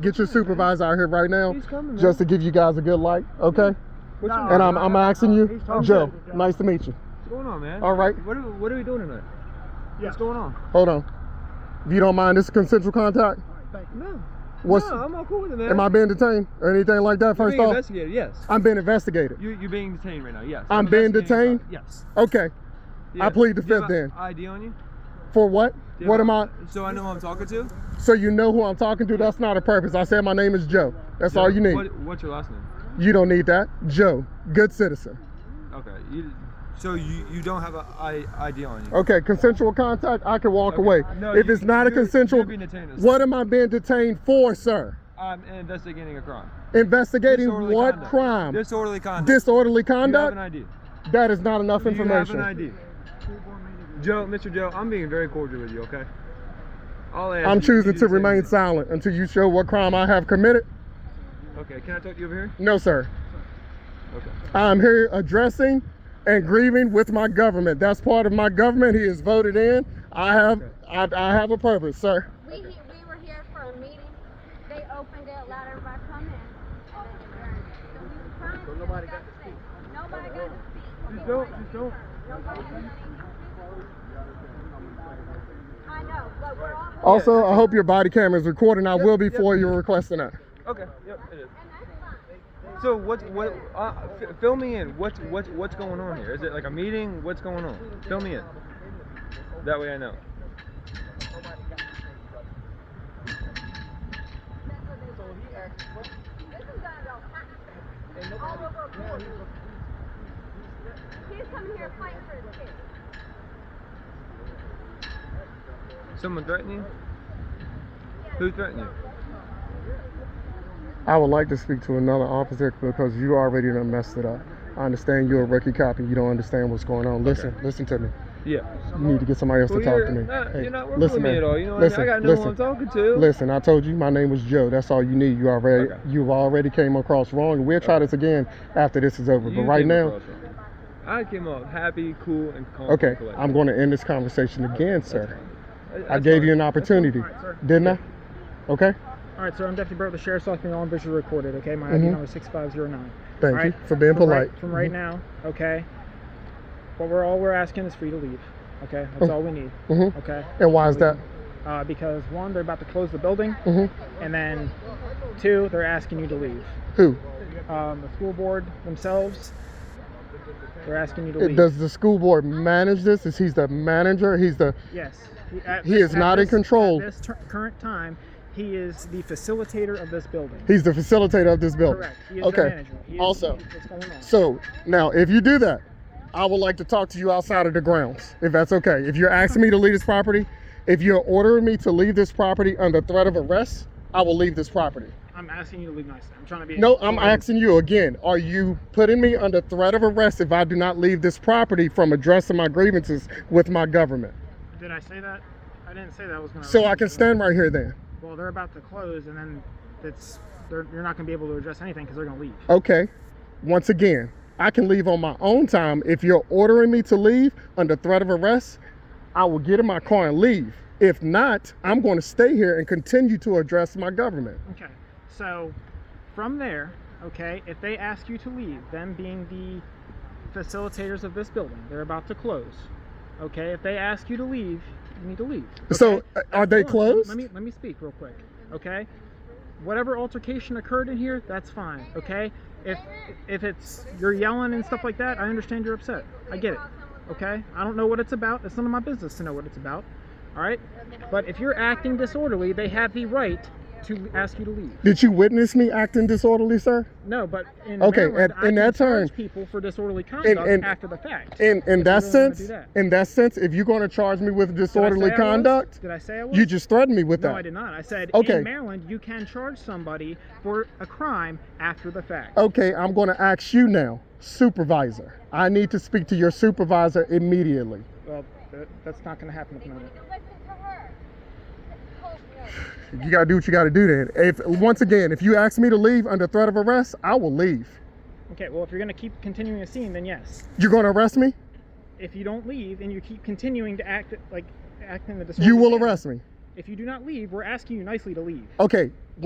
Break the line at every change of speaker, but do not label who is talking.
get your supervisor out here right now
He's coming, man.
just to give you guys a good light, okay?
What you
Nah.
mean?
And I'm, I'm asking you,
He's talking
Joe,
to Joe.
nice to meet you.
What's going on, man?
All right,
What are, what are we doing tonight?
Yeah.
What's going on?
hold on. If you don't mind, this is consensual contact.
Thank you.
No.
What's,
no, I'm all cool with it, man.
am I being detained or anything like that,
You're
first
being
off?
investigated, yes.
I'm being investigated.
You, you're being detained right now, yes.
I'm being
investigating you.
detained?
Yes.
Okay, I
Yes.
plead the
Do you
fifth
have
then.
a ID on you?
for what?
Do you
What
have
am
a-
I,
So I know who I'm talking to?
so you know who I'm talking to? That's not a purpose. I said my name is Joe. That's all
Yeah.
you need.
What, what's your last name?
You don't need that. Joe, good citizen.
Okay. You, so you, you don't have a I, ID on you?
Okay, consensual contact, I can walk
Okay.
away.
No,
if
you-
it's not a
you're- you're
consensual,
being detained.
what am I being detained for, sir?
I'm investigating a crime.
Investigating
Disorderly
what
conduct.
crime?
Disorderly conduct.
Disorderly
You have an
conduct?
ID.
That is not enough
You have
information.
an ID. Joe, Mr. Joe, I'm being very cordial with you, okay? All I ask
I'm
is you
choosing
do
to
the same
remain
thing.
silent until you show what crime I have committed.
Okay, can I talk to you over here?
No, sir.
Okay.
I'm here addressing and grieving with my government. That's part of my government. He is voted in. I have I, I have a purpose, sir.
We, he- we were here for a meeting, they opened it, allowed everybody to come in, and then adjourned it. So we were trying to. Nobody got to speak. Nobody got to speak.
Just
Okay,
don't-
why
just
you
don't-
concerned? Nobody got anything. I know, but we're all.
Also, I hope your body camera is recording. I will be
yep.
for you requesting that.
Okay, yep, it is.
And that's fine.
So what? What? Uh, f- fill me in. What's what's what's going on here? Is it like a meeting? What's going on? Fill me in. That way I know.
That's what they do. This is gonna go hot. All over a board. Kids coming here fighting for his kids.
Someone threatened you? Who threatened you?
I would like to speak to another officer because you already done messed it up. I understand you're a rookie cop and you don't understand what's going on. Listen, listen to me.
Yeah.
You need to get somebody else
Well,
to talk
you're,
to me.
not,
Hey,
you're not working
listen,
with me
man.
at all. You know what
listen,
I mean? I gotta know
listen,
who I'm talking to.
Listen, I told you my name was Joe. That's all you need. You already
Okay.
you've already came across wrong. We'll try this again after this is over.
You
but right
came
now,
across wrong. I came off happy, cool, and calm. and
okay,
collected.
I'm going to end this conversation again, sir.
That's
I gave
fine.
you an opportunity,
All right, sir.
didn't I? Okay,
All right, sir. I'm Deputy Burt, the sheriff's office. All visual recorded. Okay, my
Mhm.
ID number is six five zero nine.
thank
All
you
right,
for being
From
polite. Mm-hmm.
right, from right now, okay. What we're all we're asking is for you to leave. Okay, that's all we need.
Mhm.
Okay,
And why is that?
uh, because one, they're about to close the building,
hmm
and then two, they're asking you to leave.
Who?
Um, the school board themselves, they're asking you to
It,
leave.
does the school board manage this? Is he's the manager? He's the
Yes. At
He
thi-
is
at
not in
this-
control.
At this tur- current time, he is the facilitator of this building.
he's the facilitator of this building.
Correct. He is
okay.
the manager. He is-
Also-
what's going on?
So now, if you do that, I would like to talk to you outside of the grounds, if that's okay. If you're asking me to leave this property, if you're ordering me to leave this property under threat of arrest, I will leave this property.
I'm asking you to leave nicely. I'm trying to be.
No, I'm asking you again. Are you putting me under threat of arrest if I do not leave this property from addressing my grievances with my government?
Did I say that? I didn't say that I was going to.
So I can stand right here then.
Well, they're about to close, and then it's they're, you're not going to be able to address anything because they're going to leave.
Okay. Once again, I can leave on my own time. If you're ordering me to leave under threat of arrest, I will get in my car and leave. If not, I'm going to stay here and continue to address my government.
Okay. So from there, okay, if they ask you to leave, them being the facilitators of this building, they're about to close. Okay, if they ask you to leave, you need to leave.
So,
okay?
uh, are they
Hold on, let-
closed?
Let me let me speak real quick. Okay? Whatever altercation occurred in here, that's fine. Okay? If if it's you're yelling and stuff like that, I understand you're upset. I get it. Okay? I don't know what it's about. It's none of my business to know what it's about. All right? But if you're acting disorderly, they have the right to ask you to leave.
Did you witness me acting disorderly, sir?
No, but in
Okay,
Maryland,
at-
I
in
can
that
charge
turn-
people for disorderly conduct
in-
after the fact.
In in
If
that
you really wanna
sense,
do that.
in that sense, if you're going to charge me with
Did I say
disorderly
I was?
conduct,
Did I say I was?
you just threatened me with
No,
that.
I did not. I said
Okay.
in Maryland you can charge somebody for a crime after the fact.
Okay, I'm going to ask you now, supervisor. I need to speak to your supervisor immediately.
Well, that, that's not going to happen at the moment.
Listen to her. Hold her.
You gotta do what you gotta do then. If once again, if you ask me to leave under threat of arrest, I will leave.
Okay, well if you're going to keep continuing the scene, then yes.
You're gonna arrest me?
If you don't leave and you keep continuing to act like act in the disorderly
You will
manner,
arrest me.
If you do not leave, we're asking you nicely to leave.
Okay,